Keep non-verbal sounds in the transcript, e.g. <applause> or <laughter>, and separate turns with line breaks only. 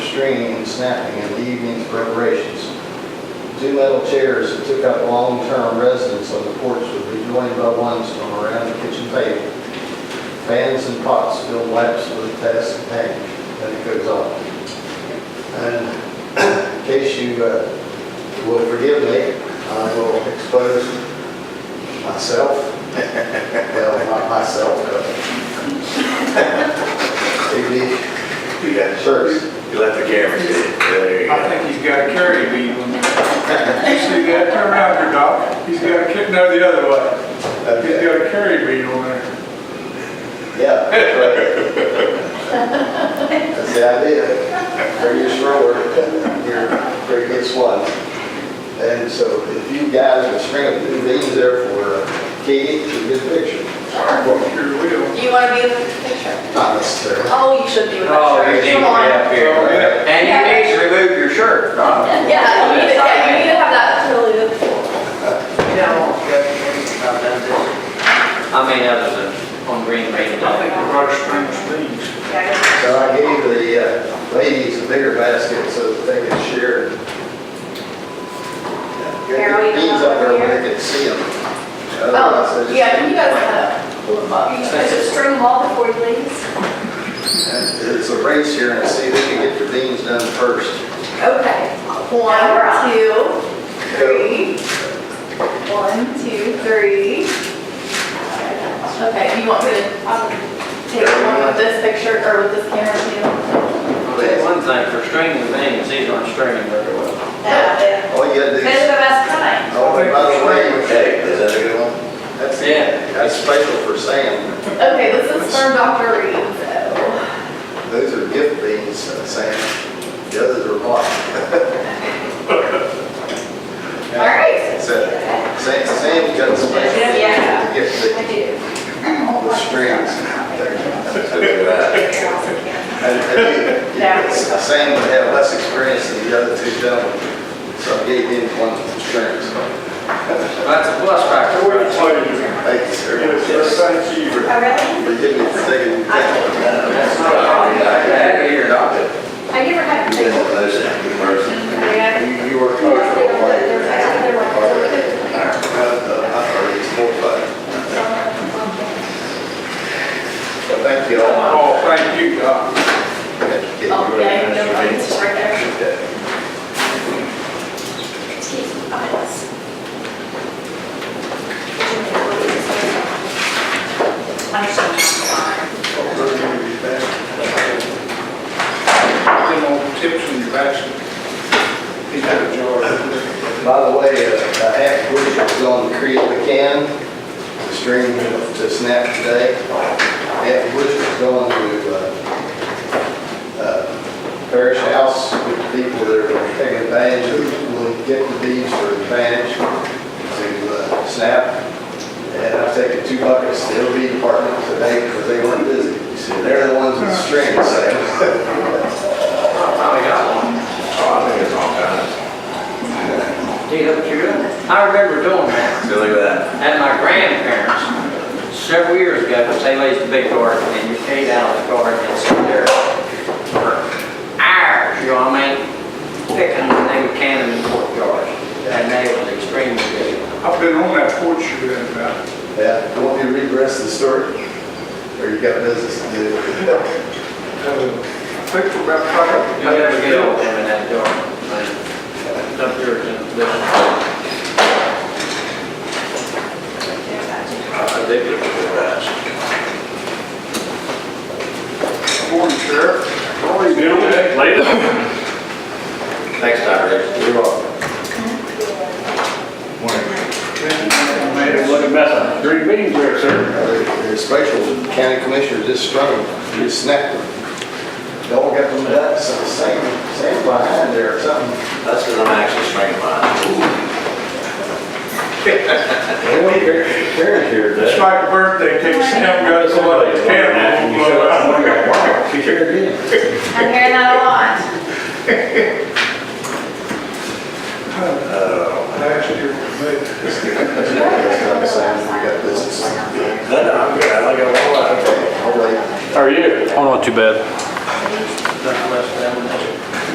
stringing and snapping in the evening's preparations. Two metal chairs that took up long-term residence on the porch would be joined by ones from around the kitchen table. Fans and pots filled laps with task at hand, and it goes on. And in case you uh, will forgive me, I will expose myself, well, not myself, but <laughs> maybe
You got it.
First.
You left the camera. There you
I
go.
think he's got a carry lead when you see that. Turn around here, Doc. He's got a, ca- no, the other way. He's
Okay.
got a carry lead on there.
Yeah, that's right. That's the idea. Previous rower, your previous one. And so if you guys would string up two these there for uh, Katie, it's a good picture. Well,
Sure will.
You want to be in the picture?
Not necessarily.
Oh, you should be in the picture.
Oh, you need to
Come on.
be up here. And you need to remove your shirt, Doc.
Yeah, you need to, yeah, you need to have that totally look
You don't want to go to this about that, do you? I mean, other than on Green Bay
I think
Day.
the brush strings leads.
So
cool.
I gave the uh, ladies a bigger basket so that they could share.
Carol, you
These
don't
up there
want
where they could see them.
Oh, yeah, can you guys kind of pull them up? You guys just string them all before you leave?
It's a race here and see who can get the beans done first.
Okay. One, two, three. One, two, three. Okay, you want me to um, take one with this picture or with this camera too?
Well, that's one thing, for stringing things, these aren't stringing very well.
Yeah.
All you gotta do
It's
is,
the best kind.
oh, and by the way,
Hey, is that a good one?
that's,
Yeah.
that's special for Sam.
Okay, this is from Dr. Reed, so.
Those are gift beans, uh, Sam. The others are block.
All right.
So, Sam, Sam's got a special
Yeah.
gift
I
that
do.
the strings. And- and he-
Yeah.
Sam would have less experience than the other two gentlemen, so I gave him one of the strings.
That's a plus factor.
We're gonna play you.
Thank you,
Yes,
sir.
thank you.
Oh, really?
Forgive me for taking
That's not a problem. That here, Doc.
I never had to
You
take
didn't
one.
want those that you were-
Yeah.
You, you were comfortable.
There's
weren't you?
another one.
All right. Uh, I heard it's more fun.
Well, Thank you all.
Oh, thank you, Doc.
Oh, yeah, no problem. It's just right there.
Okay.
Jeez, eyes. I'm just gonna-
Them old tips in your basket. He's got a jar.
By the way, uh, a half bush was on the creek McCann, the stream to snap today. Half bush was going to uh, uh, Parish House with people that are taking advantage of, will get the beads for advantage to uh, snap. And I've taken two buckets to LB department today because they weren't busy. They're the ones with strings, so.
Probably got one.
Oh, I think it's all kinds.
Gee, look, you really- I remember doing that
So look at that.
at my grandparents several years ago, because they laid the big garden, and you paid out the garden and sit there for hours, you know what I mean? Picking, they would can them in the courtyard, and they was extremely good.
I've been on that porch you've been about. uh,
Yeah, you want me to read the rest of the story? Or you got business to do?
Uh, I think we're about caught up.
You never get old them in that garden, man. Up there, in the-
I think it's good rides.
Morning, Sheriff. Morning,
Thanks, Dr. Dixon. You're welcome.
Look at that. Three meetings there, sir.
They're Uh, special, county commissioners just struggled, just snapped them. They all got them nuts, and the same, same behind there or something.
That's because I'm actually stringing mine.
It's like a birthday cake, Sam got us a lot of candy.
She sure did.
I'm hearing that a lot.
Last year, we
It's not the same, we got business.
No, no, I'm good. I like it a lot.
I'll wait.
How are you? Oh, not too bad.